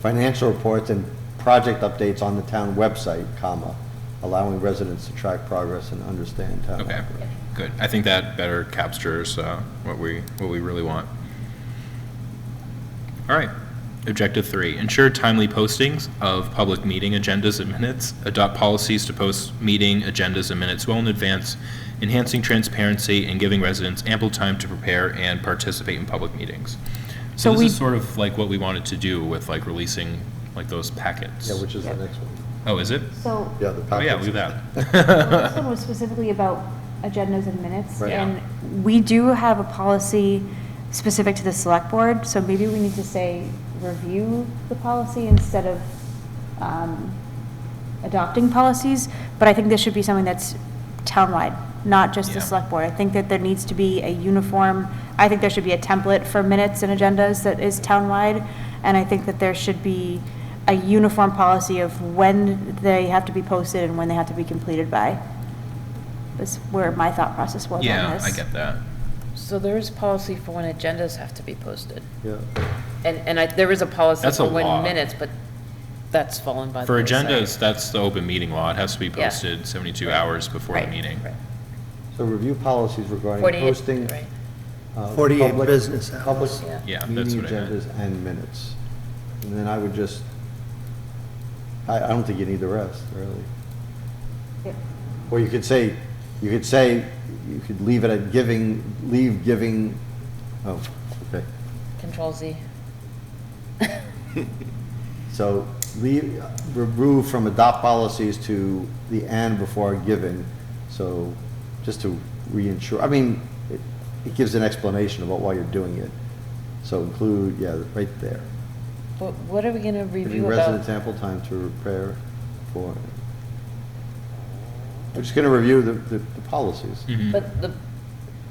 financial reports and project updates on the town website, comma, allowing residents to track progress and understand town. Okay, operations. good. I think that better captures uh, what we, what we really want. All right, objective three, ensure timely postings of public meeting agendas and minutes. Adopt policies to post meeting agendas and minutes well in advance, enhancing transparency and giving residents ample time to prepare and participate in public meetings. So So this is we- sort of like what we wanted to do with like releasing like those packets. Yeah, which is the next one. Oh, is it? So, Yeah, the Oh, yeah, packets. leave that. this one was specifically about agendas and minutes, Right. and we do have a policy specific to the select board, so maybe we need to say, review the policy instead of um, adopting policies, but I think this should be something that's townwide, not just the Yeah. select board. I think that there needs to be a uniform, I think there should be a template for minutes and agendas that is townwide, and I think that there should be a uniform policy of when they have to be posted and when they have to be completed by. That's where my thought process was on this. Yeah, I get that. So there is policy for when agendas have to be posted. Yeah. And, and I, there is a policy That's a for law. when minutes, but that's fallen by the For wayside. agendas, that's the open meeting law. It has to be Yeah. posted 72 hours before the Right, meeting. right. So review policies regarding 48, posting. right. uh, 48 public- business hours. Public Yeah. Yeah, that's meeting what I meant. agendas and minutes. And then I would just, I, I don't think you need the rest, really. Yep. Or you could say, you could say, you could leave it at giving, leave giving, oh, okay. Control Z. So leave, remove from adopt policies to the and before given, so just to reinsure, I mean, it, it gives an explanation about why you're doing it. So include, yeah, right there. But what are we gonna Giving review residents about? ample time to prepare for. We're just gonna review the, the the policies. Mhm. But the,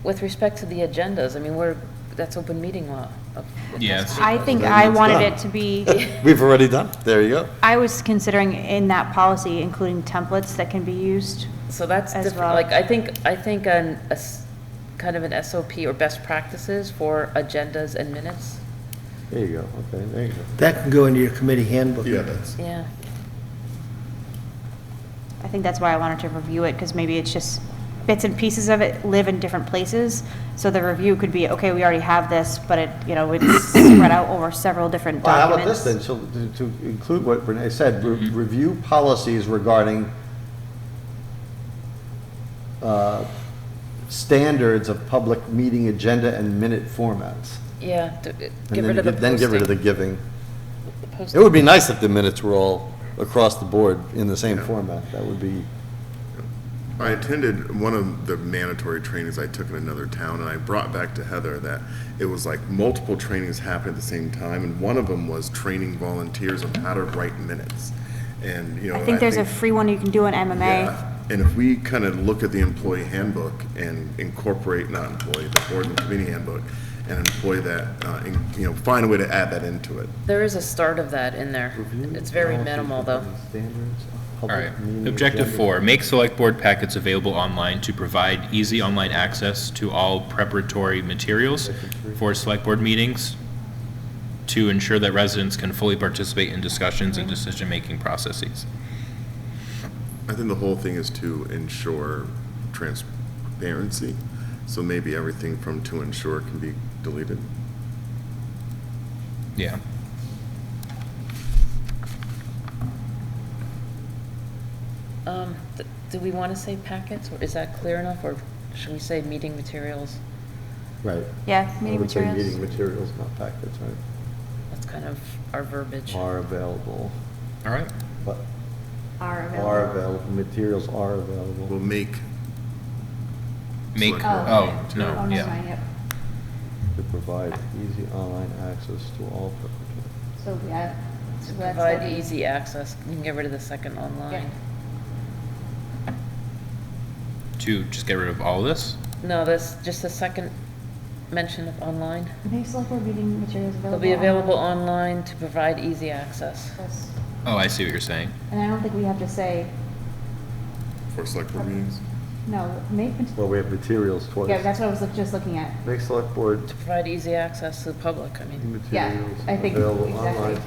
with respect to the agendas, I mean, we're, that's open meeting law. Of- it has Yeah, to be I posted. think Then I it's wanted done. it to be, We've already done, there you go. I was considering in that policy including templates that can be used. So that's as different, well. like, I think, I think an, a s- kind of an SOP or best practices for agendas and minutes, There you go, okay, there you go. That can go into your committee handbook. Yeah, that's, yeah. I think that's why I wanted to review it, because maybe it's just bits and pieces of it live in different places. So the review could be, okay, we already have this, but it, you know, it's spread out over several different Well, how documents. about this then, so to- to include what Renee said, re- review policies regarding uh, standards of public meeting agenda and minute formats. Yeah, d- get And then rid of the get- Then get rid of the posting. giving. the It posting. would be nice if the minutes were all across the board in the same format, that would be, I attended one of the mandatory trainings I took in another town, and I brought back to Heather that it was like multiple trainings happened at the same time, and one of them was training volunteers on how to write minutes. And, you know. I think there's a think- free one you can do in MMA. Yeah, And if we kind of look at the employee handbook and incorporate, not employee, the board and committee handbook, and employ that, uh, in- you know, find a way to add that into it. There is a start of that in there. It's very minimal, though. Standards of All right. public meeting Objective agenda. four, make select board packets available online to provide easy online access to all preparatory materials for select board meetings to ensure that residents can fully participate in discussions and decision-making processes. I think the whole thing is to ensure transparency, so maybe everything from to ensure can be deleted. Yeah. Um, th- do we want to say packets, or is that clear enough, or should we say meeting materials? Right. Yeah, I meeting would say meeting materials. materials, not packets, right, That's kind of our verbiage. are available, All right. but Are are available, materials are available. We'll make Make, Select oh, board. no, yeah. yep. to provide easy online access to all preparatory. So, yeah. To provide easy access, you can get rid of the second online. To just get rid of all this? No, that's just the second mention of online. Make select board meeting materials They'll be available online to provide easy access. Oh, I see what you're saying. And I don't think we have to say, for select board meetings. no, make, Well, we have materials twice. yeah, that's what I was look- just looking at. Make select board To provide easy access to the public, I mean. Yeah, materials I think- available exactly. online